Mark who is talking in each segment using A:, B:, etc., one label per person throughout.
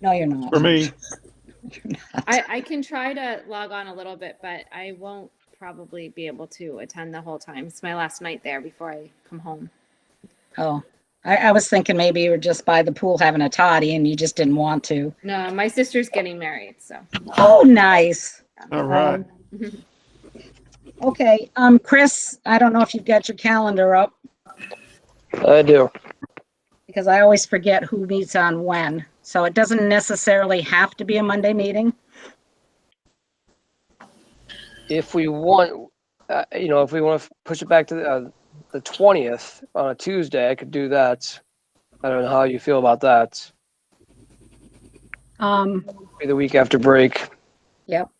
A: No, you're not.
B: For me,
C: I, I can try to log on a little bit, but I won't probably be able to attend the whole time. It's my last night there before I come home.
A: Oh, I, I was thinking maybe you were just by the pool having a toddy and you just didn't want to.
C: No, my sister's getting married, so.
A: Oh, nice.
B: all
D: Um,
B: right.
A: Okay, um, Chris, I don't know if you've got your calendar up
E: I do.
A: because I always forget who meets on when. So it doesn't necessarily have to be a Monday meeting.
E: If we want, uh, you know, if we want to push it back to the, uh, the 20th on a Tuesday, I could do that. I don't know how you feel about that.
A: Um,
E: Be the week after break.
A: yep.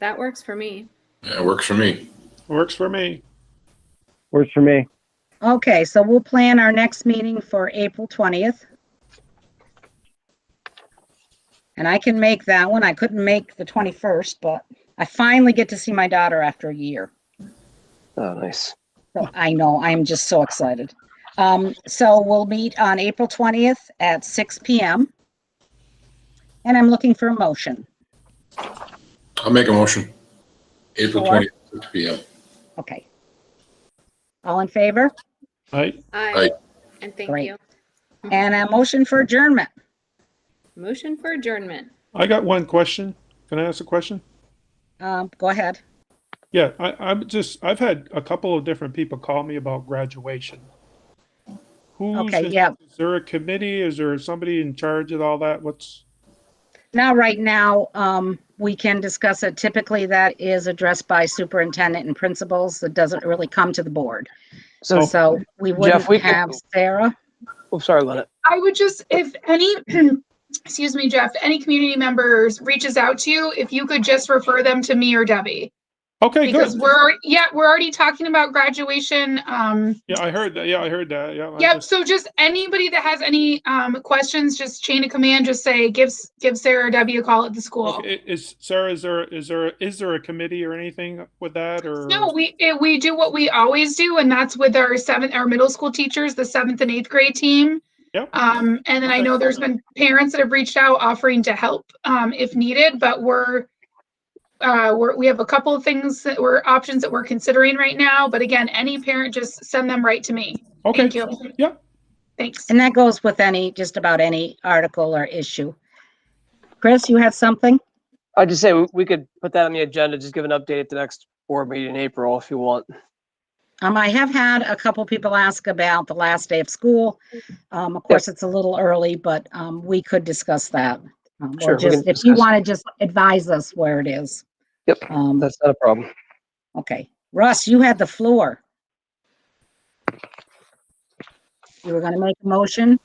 C: That works for me.
F: Yeah, it works for me.
B: Works for me.
G: Works for me.
A: Okay, so we'll plan our next meeting for April 20th. And I can make that one. I couldn't make the 21st, but I finally get to see my daughter after a year.
E: Oh, nice.
A: So I know, I'm just so excited. Um, so we'll meet on April 20th at 6 PM. And I'm looking for a motion.
F: I'll make a motion. April
A: Sure.
F: twentieth, six P M.
A: Okay. All in favor?
B: Right?
C: Aye.
F: Aye.
C: And thank
A: Great.
C: you.
E: Mm-hmm.
A: And a motion for adjournment.
C: Motion for adjournment.
B: I got one question. Can I ask a question?
A: Um, go ahead.
B: Yeah, I, I'm just, I've had a couple of different people call me about graduation. Who's,
A: Okay,
B: in-
A: yeah.
B: Is there a committee? Is there somebody in charge of all that? What's,
A: Now, right now, um, we can discuss it. Typically, that is addressed by superintendent and principals. It doesn't really come to the board.
E: So,
B: Oh.
A: So we wouldn't
E: we can-
A: have Sarah.
E: oh, sorry, Leonard.
D: I would just, if any, excuse me, Jeff, any community members reaches out to you, if you could just refer them to me or Debbie.
B: okay,
D: Because
B: good.
D: we're, alre- yeah, we're already talking about graduation. Um,
B: Yeah, I heard that. Yeah, I heard that. Yeah. I
D: yep,
B: just-
D: so just anybody that has any, um, questions, just chain of command, just say, give, S- give Sarah or Debbie a call at the school.
B: Okay, Is, Sarah, is there, is there, is there a committee or anything with that or?
D: No, we, it- we do what we always do, and that's with our seventh, our middle school teachers, the seventh and eighth grade team.
B: Yep.
D: Um, and then I know there's been parents that have reached out offering to help, um, if needed, but we're, uh, we're, we have a couple of things that we're, options that we're considering right now, but again, any parent, just send them right to me.
B: Okay,
D: Thank you.
B: Yep.
D: Thanks.
A: And that goes with any, just about any article or issue. Chris, you had something?
E: I just say we- we could put that on the agenda, just give an update at the next board meeting in April if you want.
A: Um, I have had a couple people ask about the last day of school. Um, of course, it's a little early, but, um, we could discuss that. Um,
E: Sure,
A: Or
E: we can
A: just, if you
E: discuss.
A: want to just advise us where it is.
E: Yep.
A: Um,
E: That's not a problem.
A: Okay, Russ, you had the floor. You were gonna make a motion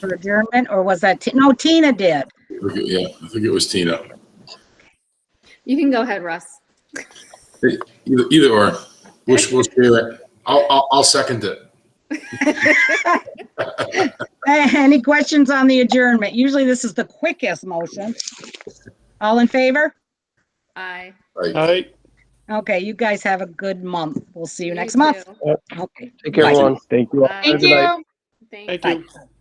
A: for adjournment, or was that, Ti- no, Tina did.
F: Yeah, I think it was Tina.
C: You can go ahead, Russ.
F: Either, either or. We'll, we'll share it. I'll, I'll, I'll second it.
A: Eh, Any questions on the adjournment? Usually this is the quickest motion. All in favor?
C: Aye.
F: Like,
B: All right.
A: Okay, you guys have a good month. We'll see you next
C: too.
A: month. Okay.
E: Take care,
A: Bye.
E: everyone.
G: Thank you.
C: Aye.
D: Thank
E: Good night.
D: you.
B: Thank
A: Bye.
B: you.